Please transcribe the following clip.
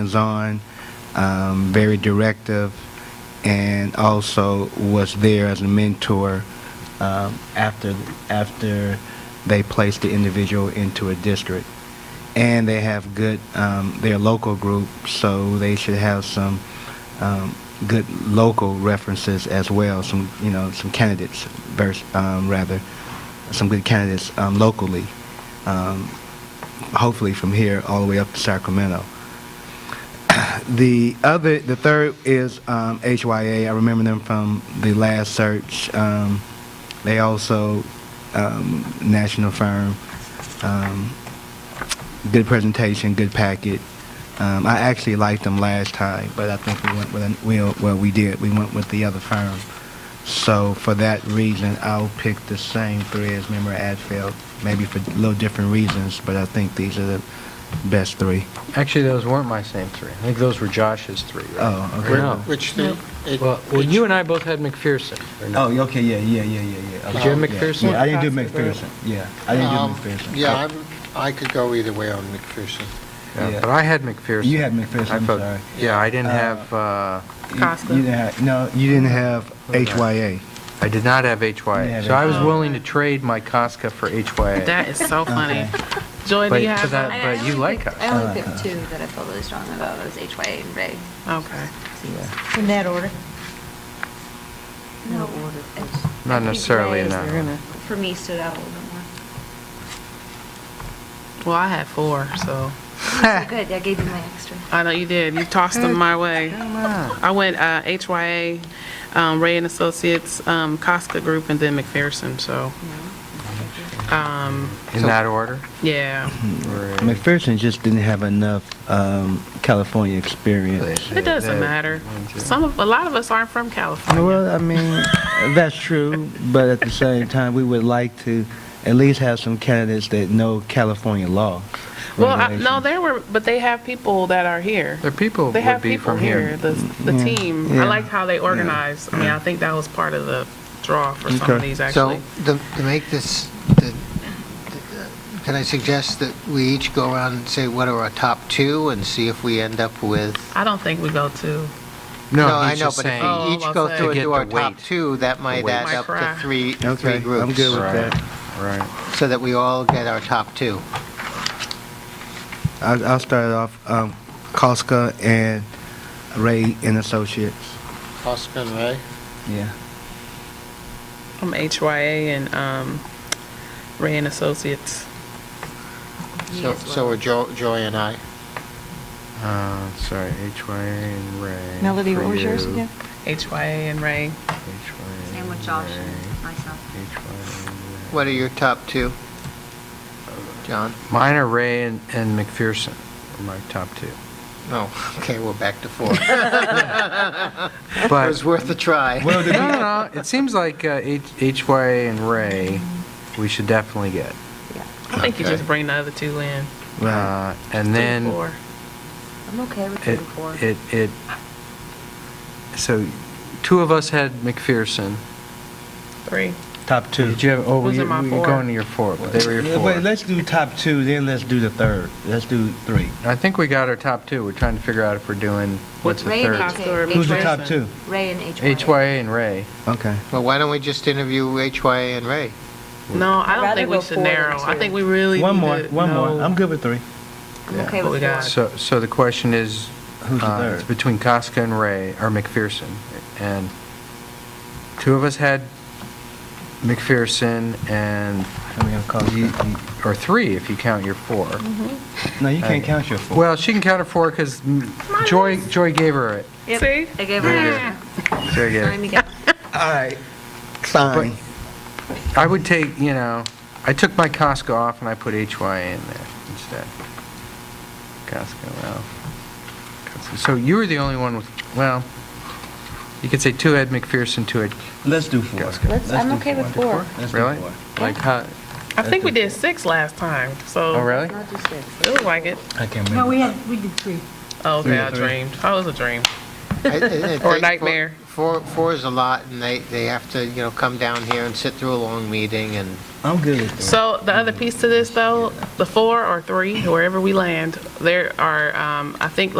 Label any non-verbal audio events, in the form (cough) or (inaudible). hands-on, um, very directive, and also was there as a mentor um, after after they placed the individual into a district. And they have good, um, they're a local group, so they should have some um, good local references as well. Some you know some candidates, vers- um, rather, some good candidates um, locally. Um, hopefully from here all the way up to Sacramento. The other, the third is um, HYA. I remember them from the last search. Um, They also, um, national firm, um, good presentation, good packet. Um, I actually liked them last time, but I think we went with, an- we- well, we did, we went with the other firm. So for that reason, I'll pick the same three as Member Adfeld, maybe for little different reasons, but I think these are the best three. Actually, those weren't my same three. I think those were Josh's three, right? Oh, okay. Or no? Which the... it- Well, well, which- you and I both had McPherson. or no? Oh, yeah, okay, yeah, yeah, yeah, yeah, yeah. Did you have Okay, yeah. McPherson? Yeah, I didn't do McPherson, yeah. I um, didn't do McPherson. Oh, Yeah, I'm- I could go either way on McPherson. yeah. Yeah, But I had McPherson. You had McPherson, I I'm felt- sorry. Yeah, I didn't Uh, have, uh, You- Costco. You didn't have, no, you didn't have Okay. HYA. I did not have You HYA. had So I was HYA. willing to trade my Costco for HYA. That is so funny. Okay. Joy, do But- you because have I- one? I- but I you only like picked- us. I only picked two that I felt really strong about, was HYA and Ray. Okay. In that order? No order. Not necessarily in that order. For me, stood out a little (laughs) bit more. Well, I had four, so. So Oh, Good, I gave you my extra. I know you did. You tossed them my way. I went uh, HYA, um, Ray and Associates, um, Costco Group, and then McPherson, so, um, In that order? yeah. Or- McPherson just didn't have enough um, California Oh, experience. It doesn't matter. Some of, a lot of us aren't from California. Well, I mean, that's true, but at the same time, we would like to at least have some candidates that know California law. Well, I- no, regulations. there were, but they have people that are here. Their people They would have be people from here, here. the, the Yeah. team. Yeah. I like how they organized. I mean, I think that was part of the draw for some of Okay. these, So actually. to to make this, the- the- can I suggest that we each go around and say what are our top two and see if we end up with... I don't think we go to. No, he's I know, just but if saying, we Oh, each go through about that. and To do get our the top weight. two, that might weight. add up Might to three, Okay, three groups. I'm good with Right. that. right. So that we all get our top two. I- I'll start it off, um, Costco and Ray and Associates. Oscar and Ray? Yeah. I'm HYA and um, Ray and Associates. Me So as so well. are Jo- Joy and I. Uh, Sorry, HYA and Ray. Melody, for what was yours you. again? HYA and Ray. HYA Same with Josh and and myself. Ray. HYA and Ray. What are your top two? John? Mine are Ray and, and McPherson are my top two. No, (laughs) okay, we're back to four. It But, was worth a (laughs) try. no, no, (laughs) no, it seems like uh, H- HYA and Ray, we should definitely get. I think you Okay. just bring the other two in. Right. Uh, And Three, then, four. I'm okay with two it, and four. it, it, so two of us had McPherson. Three. Top two. Did you have, oh, Those you- are my you four. were going to your four, but they were Yeah, your Wait, four. let's do top two, then let's do the third. Let's do three. I think we got our top two. We're trying to figure out if we're doing, what's the Ray and third? HYA. Who's Who's the top McPherson. two? Ray and HYA. HYA and Ray. Okay. Well, why don't we just interview HYA and (laughs) Ray? No, I don't Rather think we go should four than narrow. I two. think we really. One need more, to one more. know- I'm good with three. I'm okay What we with got? four. So, so the question is, Who's the uh, third? it's between Costco and Ray, or McPherson, and two of us had McPherson and, And we have you- Costco. you- or three if you count your four. No, you can't Uh, count your four. Well, she can count her four because Joy, Joy gave her it. See? I gave her an Yeah. extra. Joy gave Time it. again. All right. Fine. I would take, you know, I took my Costco off and I put HYA in there instead. Costco, well. Costco. So you were the only one with, well, you could say two had McPherson, two had Let's do four. Costco. Let's- Let's I'm do okay with four. Let's do Really? four. Like how? I think we did six last time, so. Oh, really? I'll do six. It was like it. I can't remember. No, we had, we did three. Oh, Three okay, to I three. dreamed. Oh, it was a dream. I- I- I think Or four- nightmare. Four, four is a lot, and they, they have to, you know, come down here and sit through a long meeting, and I'm good with three. So the other piece to this, though, the four or three, wherever we land, there are, um, I think,